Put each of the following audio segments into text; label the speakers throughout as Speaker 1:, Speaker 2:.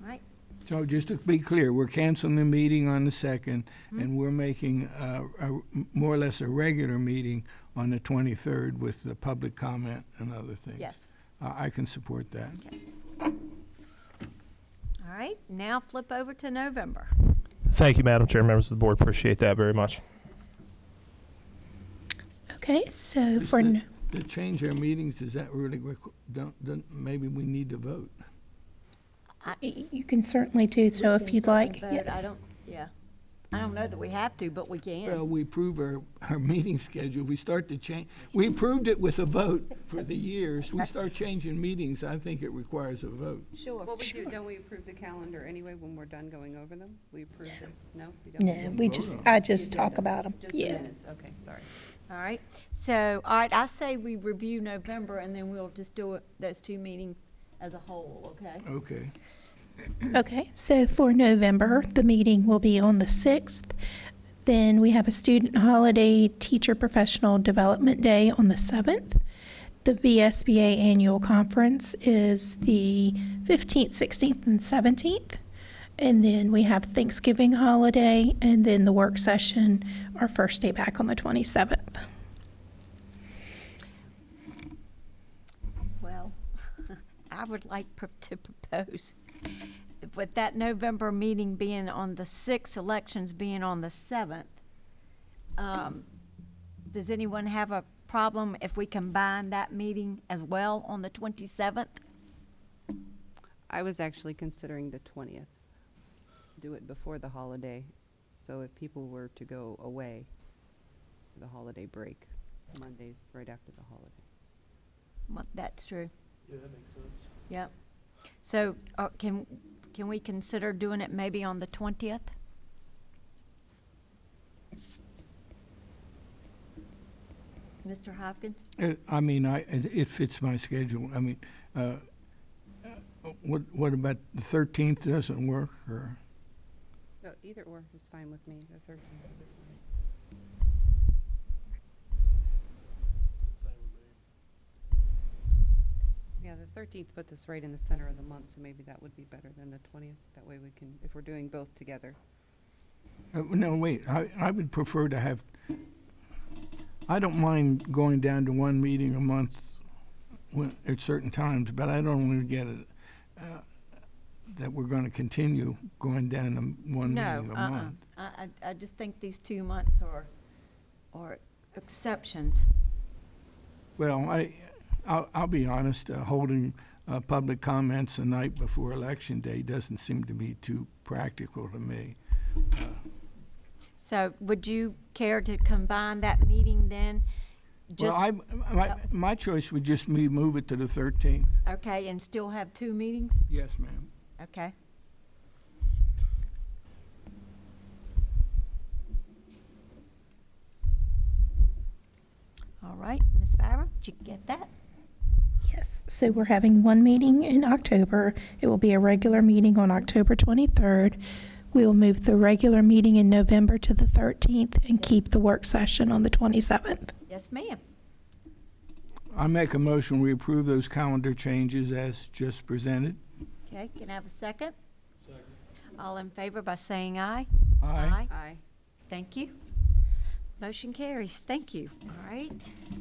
Speaker 1: right?
Speaker 2: So just to be clear, we're canceling the meeting on the second,
Speaker 1: Mm-hmm.
Speaker 2: and we're making uh, a, more or less a regular meeting on the twenty-third with the public comment and other things.
Speaker 1: Yes.
Speaker 2: I, I can support that.
Speaker 1: All right, now flip over to November.
Speaker 3: Thank you, Madam Chair, members of the board. Appreciate that very much.
Speaker 4: Okay, so
Speaker 2: Is
Speaker 4: for,
Speaker 2: the-
Speaker 4: n-
Speaker 2: To change our meetings, does that really, requ- don't, don't, maybe we need to vote?
Speaker 4: y- you can certainly do so if you'd like,
Speaker 1: Vote, I
Speaker 4: yes.
Speaker 1: don't, yeah. I don't know that we have to, but we
Speaker 2: Well,
Speaker 1: can.
Speaker 2: we approve our, our meeting schedule, we start to change, we approved it with a vote for the years, we start changing meetings, I think it requires a vote.
Speaker 1: Sure.
Speaker 5: What we do, don't we approve the calendar anyway when we're done going over them? We approve this? No? we don't?
Speaker 4: No, we just, I just talk about them,
Speaker 5: Just the
Speaker 4: yeah.
Speaker 5: minutes, okay, sorry.
Speaker 1: All right, so, all right, I say we review November and then we'll just do it- those two meetings as a whole, okay?
Speaker 2: Okay.
Speaker 4: Okay, so for November, the meeting will be on the 6th. Then we have a student holiday, teacher professional development day on the 7th. The VSBA annual conference is the 15th, 16th, and 17th. And then we have Thanksgiving holiday, and then the work session, our first day back on the 27th.
Speaker 1: Well, I would like pro- to propose, with that November meeting being on the sixth, elections being on the seventh, um, does anyone have a problem if we combine that meeting as well on the twenty-seventh?
Speaker 5: I was actually considering the twentieth. Do it before the holiday, so if people were to go away, for the holiday break, Mondays right after the holiday.
Speaker 1: That's true. Yeah, that makes sense. Yep. So, uh, can, can we consider doing it maybe on the twentieth? Mr. Hopkins?
Speaker 2: Uh, I mean, I, it it fits my schedule. I mean, uh, uh, what, what about the thirteenth doesn't work, or?
Speaker 5: No, either or is fine with me, the thirteenth. Yeah, the thirteenth puts us right in the center of the month, so maybe that would be better than the twentieth. That way we can, if we're doing both together.
Speaker 2: Uh, No, wait, I, I would prefer to have, I don't mind going down to one meeting a month when, at certain times, but I don't want to get it, uh, that we're gonna continue going down to one
Speaker 1: No,
Speaker 2: meeting a
Speaker 1: uh-uh.
Speaker 2: month.
Speaker 1: I, I, I just think these two months are, are exceptions.
Speaker 2: Well, I, I'll, I'll be honest, uh, holding, uh, public comments the night before election day doesn't seem to be too practical to me.
Speaker 1: So would you care to combine that meeting then?
Speaker 2: Well,
Speaker 1: Just uh
Speaker 2: I, my, my choice would just be move it to the thirteenth.
Speaker 1: Okay, and still have two meetings?
Speaker 2: Yes, ma'am.
Speaker 1: Okay. All right, Ms. Byram, did you get that?
Speaker 4: Yes, so we're having one meeting in October. It will be a regular meeting on October 23rd. We will move the regular meeting in November to the 13th and keep the work session on the 27th.
Speaker 1: Yes, ma'am.
Speaker 2: I make a motion, we approve those calendar changes as just presented.
Speaker 1: Okay, can I have a second? Second. All in favor by saying aye?
Speaker 2: Aye.
Speaker 5: Aye.
Speaker 1: Thank you. Motion carries. Thank you. All right.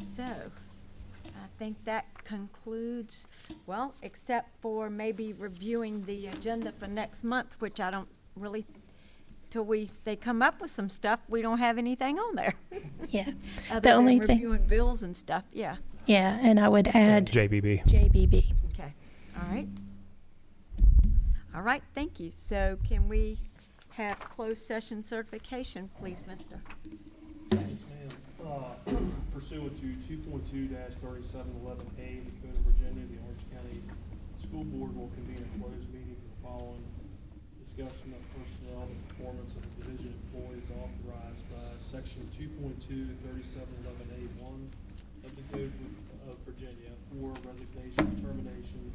Speaker 1: So I think that concludes, well, except for maybe reviewing the agenda for next month, which I don't really, till we, they come up with some stuff, we don't have anything on there.
Speaker 4: Yeah.
Speaker 1: other
Speaker 4: The
Speaker 1: than
Speaker 4: only thing,
Speaker 1: Reviewing bills and stuff. Yeah.
Speaker 4: yeah, and I would add
Speaker 3: JBB.
Speaker 4: JBB.
Speaker 1: Okay. All right. All right. Thank you. So can we have closed session certification, please, Mr.?
Speaker 6: Yes, ma'am. Uh, Pursuant to two point two thirty-seven eleven A of the Code of Virginia, the Orange County School Board will convene a closed meeting for the following discussion of personnel and performance of the division employees authorized by section two point two thirty-seven eleven A one of the Code of Virginia for resignation, termination,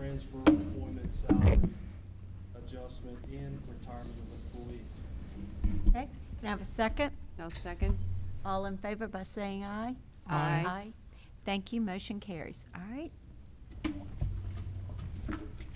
Speaker 6: transfer, employment, salary adjustment, and retirement of employees.
Speaker 1: Okay. Can I have a second?
Speaker 5: Now second?
Speaker 1: All in favor by saying aye?
Speaker 5: Aye.
Speaker 1: Thank you, motion carries. All right,